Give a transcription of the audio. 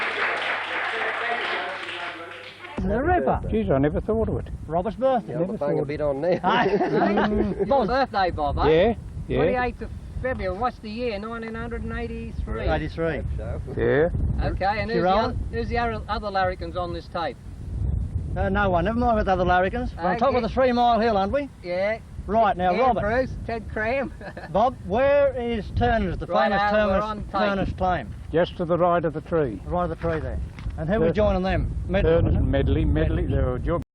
the river. Geez, I never thought of it. Robber's birthday. Yeah. Yeah. Never Never bang a thought. bit on now. It's your birthday, Bob, eh? Yeah, yeah, 28th of February. What's the year? 1983. 83. So, yeah. Okay, and who's the, Gerard? oth- who's the other, other larrikins on this tape? Uh, no one, never mind with other larrikins. We're on Uh, top of yeah. the three mile hill, aren't we? Yeah. Right, now, Ian Robert. Bruce, Ted Cram. Bob, where is Turner's, the Right famous out, we're on Turner's, tape. Turner's claim? Just to the right of the tree. Right of the tree there. And who are we Turner. joining them? Medley, Turner's wasn't it? and Medley, Medley, Medley. they're a job.